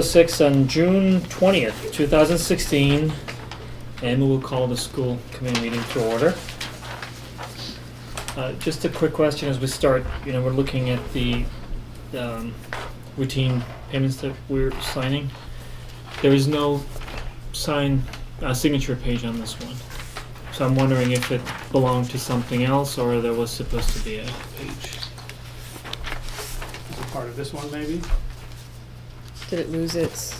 Six on June twentieth, two thousand sixteen, and we will call the school committee meeting to order. Uh, just a quick question as we start, you know, we're looking at the, um, routine payments that we're signing. There is no sign, uh, signature page on this one. So I'm wondering if it belonged to something else or there was supposed to be a page. Is it part of this one, maybe? Did it lose its?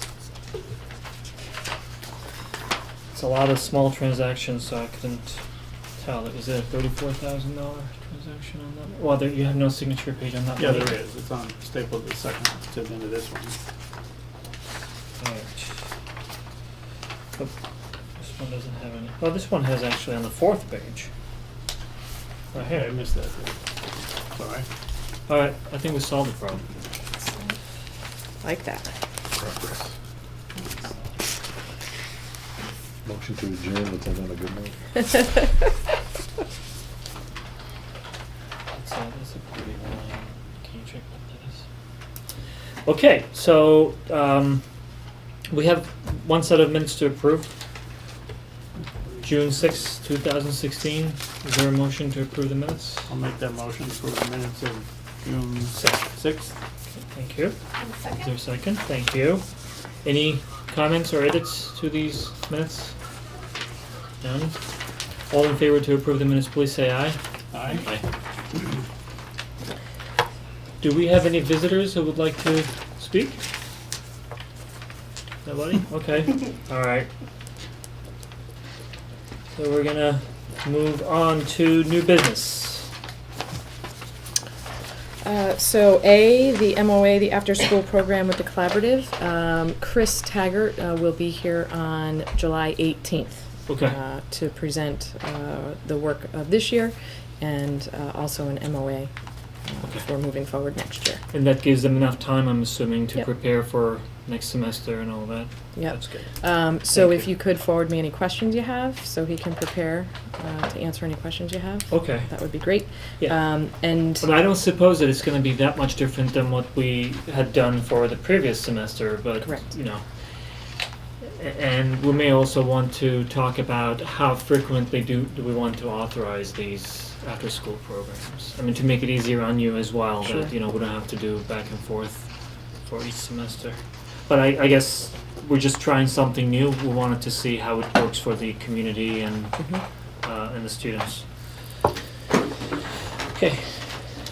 It's a lot of small transactions, so I couldn't tell. It was a thirty-four thousand dollar transaction on that. Well, there, you have no signature page on that. Yeah, one there either. is, it's on stapled the second to the end of this one. Alright. Oh, This one doesn't have any. Well, this one has actually on the fourth page. Right Oh, Hey, I here. missed that. there. Sorry. All right, I think we solved the problem. Like that. Motion to adjourn, let's end on a good note. That's a, that's a pretty line. Can you check what that is? Okay, so um, we have one set of minutes to approve. June sixth, two 2016. Is there a motion to approve the minutes? I'll make that motion for the minutes of June sixth. Thank you. Is there a second? Thank you. Any comments or edits to these minutes? None? All in favor to approve the minutes, please say aye. Aye. Do we have any visitors who would like to speak? Nobody? Okay, alright. So we're gonna move on to new business. Uh, so A, the MOA, the after-school program with the collaborative. Um, Chris Taggart uh, will be here on July 18th Okay, uh, to present uh, the work of this year and uh, also an MOA uh, for moving forward next year. and that gives them enough time, I'm assuming, to Yep. prepare for next semester and all that? Yep. That's good. Um, so Thank if you. you could forward me any questions you have, so he can prepare uh, to answer any questions you have, Okay. that would be great. Yeah. Um, and But I don't suppose that it's gonna be that much different than what we had done for the previous semester, but, Correct. you know. A- And we may also want to talk about how frequently do, do we want to authorize these after-school programs? I mean, to make it easier on you as well, Sure. that, you know, we don't have to do back and forth for each semester. But I, I guess we're just trying something new, we wanted to see how it works for the community and, Mhm. uh, and the students. Okay.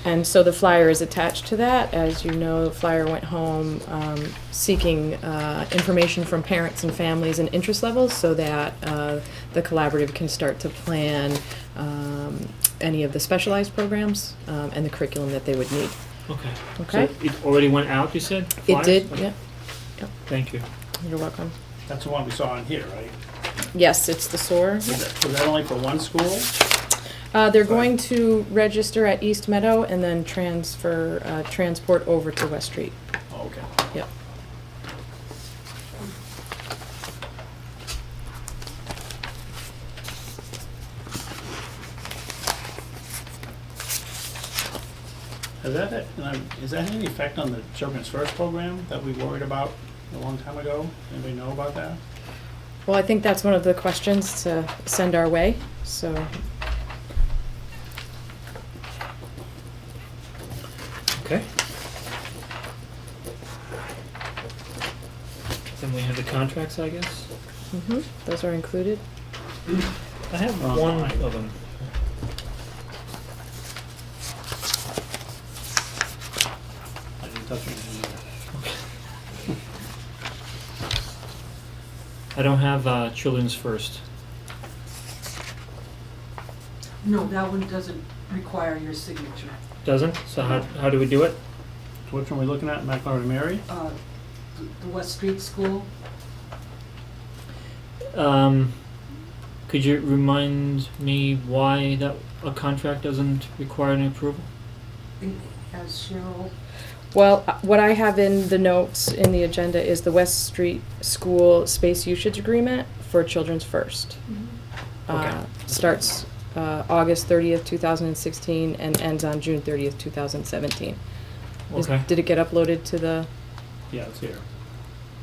And so the flyer is attached to that. As you know, the flyer went home um, seeking uh, information from parents and families and interest levels so that uh, the collaborative can start to plan um, any of the specialized programs um, and the curriculum that they would need. Okay. Okay? So it already went out, you said? It Flyers? did, Okay. yeah. Thank you. You're welcome. That's the one we saw in here, right? Yes, it's the SOAR. Was that, was that only for one school? Uh, They're going to register at East Meadow and then transfer, uh, transport over to West Street. Oh, Okay. Yep. Has that, had- and I'm- is that any effect on the Children's First program that we worried about a long time ago? Anybody know about that? Well, I think that's one of the questions to send our way, so Okay. Then we have the contracts, I guess. Mm-hmm. Mhm, Those are included. Um, I have Oh, one my. of them. I didn't touch anything. I don't have uh, Children's First. No, that one doesn't require your signature. Doesn't? So how, how do we do it? Which one are we looking at, McLaren and Mary? Uh, The the West Street School, Um, could you remind me why that a contract doesn't require any approval? as Cheryl, Well, uh, what I have in the notes in the agenda is the West Street School Space Usage Agreement for Children's First. Mm-hmm. Okay. Uh, Starts uh, August 30th, 2016, and ends on June 30th, 2017. Is- Okay. Did it get uploaded to the, Yeah, it's here.